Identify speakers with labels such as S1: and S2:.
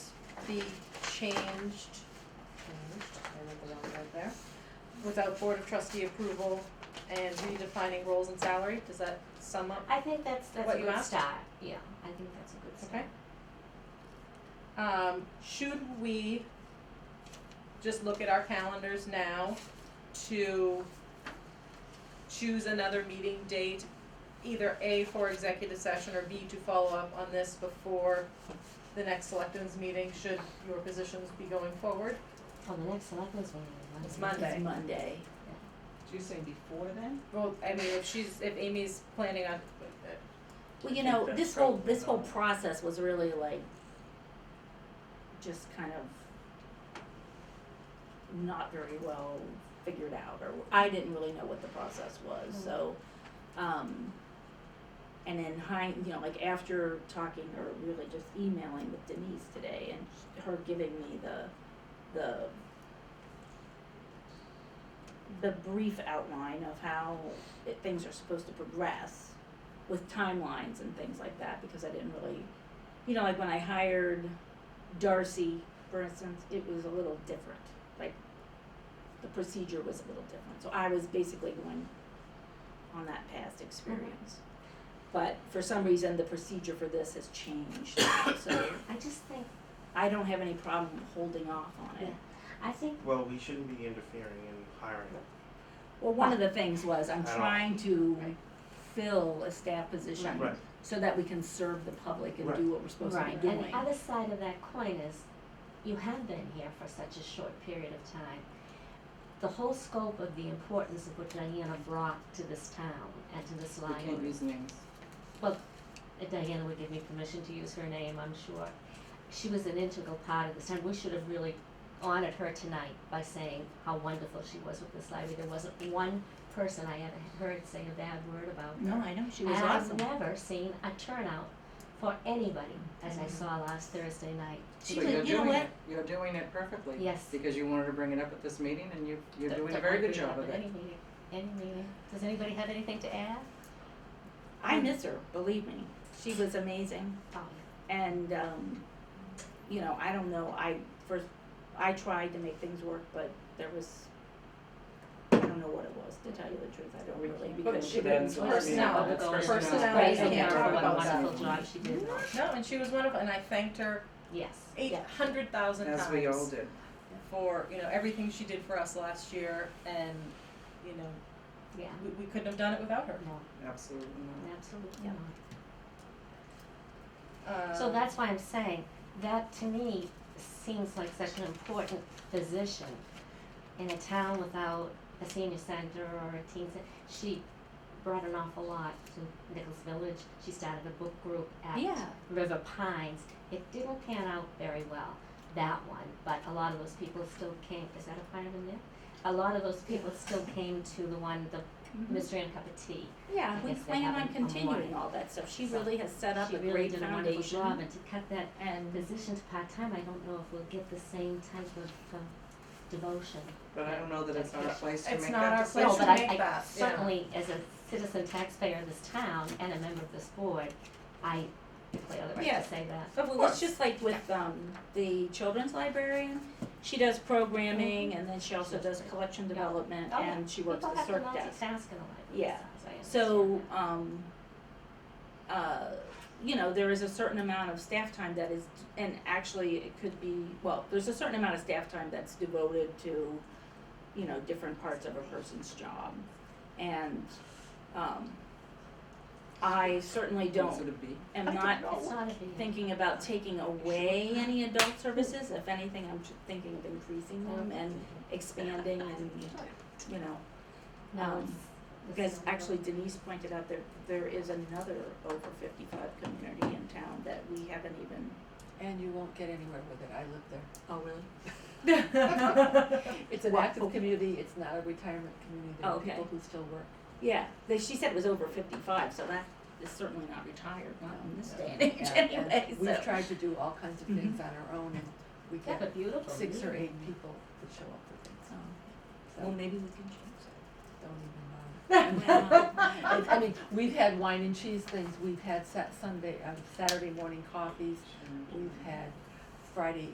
S1: be changed, changed, I wrote the wrong word there, Mm-hmm. without board of trustee approval and redefining roles and salary, does that sum up?
S2: I think that's that's
S1: What
S2: a
S1: you
S2: good
S1: asked?
S2: start. Yeah, I think that's a good start.
S1: Okay. Um, should we just look at our calendars now to choose another meeting date, either A for executive session or B to follow up on this before the next selectmen's meeting, should your positions be going forward?
S2: Well, the next selectmen's meeting
S1: It's
S2: is
S1: Monday.
S2: Monday.
S3: It's Monday.
S4: So you're saying before then?
S1: Well, I mean, if she's, if Amy's planning on,
S3: Well, you
S5: think
S3: know,
S5: that's
S3: this whole,
S5: probably
S3: this whole
S5: not-
S3: process was really like, just kind of not very well figured out, or I didn't really know what the process was, so, um, and in hind, you know, like after talking or really just emailing with Denise today and her giving me the, the the brief outline of how it, things are supposed to progress with timelines and things like that because I didn't really, you know, like when I hired Darcy, for instance, it was a little different. Like the procedure was a little different. So I was basically going on that past experience. But for some reason, the procedure for this has changed. so
S2: I just think
S3: I don't have any problem holding off on it.
S2: Yeah. I think
S5: Well, we shouldn't be interfering in hiring.
S3: Well, one of the things was
S5: I
S3: I'm
S5: don't-
S3: trying to
S2: Right.
S3: fill a staff position
S5: Right.
S3: so that we can serve the public and
S5: Right.
S3: do what we're supposed
S2: right.
S3: to be
S2: And
S3: doing.
S2: the other side of that coin is you have been here for such a short period of time. The whole scope of the importance of what Diana brought to this town and to this
S4: We can't
S2: library.
S4: use names.
S2: Uh, Diana would give me permission to use her name, I'm sure. She was an integral part of this town. We should have really honored her tonight by saying how wonderful she was with this library. There wasn't one person I ever heard say a bad word about her.
S3: No, I know she was
S2: and
S3: awesome.
S2: I've never seen a turnout for anybody as I saw last Thursday night.
S3: She
S4: But
S3: was-
S4: you're
S3: you know
S4: doing
S3: what?
S4: it- You're doing it perfectly.
S2: Yes.
S4: Because you wanted to bring it up at this meeting and you, you're
S2: Don't-
S4: doing a
S2: don't
S4: very
S2: wanna bring
S4: good
S2: it
S4: job
S2: up
S4: of
S2: at
S4: it.
S2: Any meeting, any meeting. Does anybody have anything to add?
S3: I miss her, believe me. She was amazing.
S2: Oh,
S3: And, um, you know, I don't know, I first, I tried to make things work, but there was, I don't know what it was, to tell you the truth, I don't really, because she
S4: That's
S3: was.
S2: Well,
S1: personnel,
S4: that's
S1: personnel. Personnel,
S2: Praise
S1: we
S2: her
S1: can't talk
S2: for what a
S1: about
S2: wonderful
S4: that.
S2: job she did.
S1: no, and she was wonderful, and I thanked her
S2: Yes.
S1: eight
S2: Yeah.
S1: hundred thousand times.
S4: As we all did.
S1: For, you know, everything she did for us last year, and, you know,
S2: Yeah.
S1: we, we couldn't have done it without her.
S2: No,
S4: Absolutely not.
S2: absolutely
S3: Yeah.
S2: not.
S1: Um,
S2: So that's why I'm saying, that to me seems like such an important position in a town without a senior center or a teen center. She brought an awful lot to Nichols Village, she started a book group
S3: Yeah.
S2: at River Pines. It didn't pan out very well, that one, but a lot of those people still came, is that a fire in there? A lot of those people still came to the one, the mystery and a cup of tea.
S3: Mm-hmm. Yeah,
S2: I
S3: we
S2: guess they
S3: plan on
S2: haven't come
S3: continuing
S2: on.
S3: all that stuff, she
S2: So,
S3: really has set up
S2: She
S3: a
S2: really
S3: great
S2: did a wonderful
S3: foundation,
S2: job, and to cut that
S3: and
S2: position to part-time, I don't know if we'll get the same type of um, devotion.
S4: But I don't know that it's our place to
S1: It's
S4: make
S1: not our
S4: that
S1: place
S4: decision.
S1: No,
S2: No,
S1: should make
S2: but I, I
S1: that, yeah.
S2: certainly, as a citizen taxpayer of this town and a member of this board, I declare the right
S3: Yeah.
S2: to say that.
S3: But well, it's just like with um the children's librarian, she does programming and then she also
S2: She does
S3: does collection
S2: Mm-hmm. Yeah.
S3: development
S2: Oh, yeah.
S3: and she works the
S2: People
S3: circ
S2: have to
S3: desk.
S2: multitask in a library,
S3: Yeah.
S2: so I
S3: So
S2: understand that.
S3: um uh you know, there is a certain amount of staff time that is and actually it could be well, there's a certain amount of staff time that's devoted to, you know, different parts of a person's job. And um I certainly
S4: Is it
S3: don't
S4: a B?
S3: am
S4: I don't
S3: not
S4: know.
S2: It's not a big.
S3: thinking about taking away any adult services. If anything, I'm tr- thinking of increasing them and expanding and, you know,
S2: No,
S3: um,
S2: it's. it's
S3: because
S2: not a-
S3: actually Denise pointed out there, there is another over fifty-five community in town that we haven't even.
S6: And you won't get anywhere with it, I live there.
S3: Oh, really?
S6: It's an
S3: What?
S6: active community, it's not a retirement community, there are
S3: Oh, Okay.
S6: people who still work.
S3: Yeah, they, she said it was over fifty-five, so that is certainly not retired, not in this day and age
S6: Yeah, and
S3: anyway,
S6: We've
S3: so. Mm-hmm.
S6: tried to do all kinds of things on our own and we
S2: Yeah,
S6: get
S2: but beautiful.
S6: six or
S2: meeting.
S6: eight people that show up for things,
S3: Oh, So,
S6: so
S3: Well,
S6: don't
S3: maybe we can change
S6: even
S3: that. Wow.
S6: mind. I I mean, we've had wine and cheese things, we've had Sat- Sunday, um, Saturday morning coffees, we've had Friday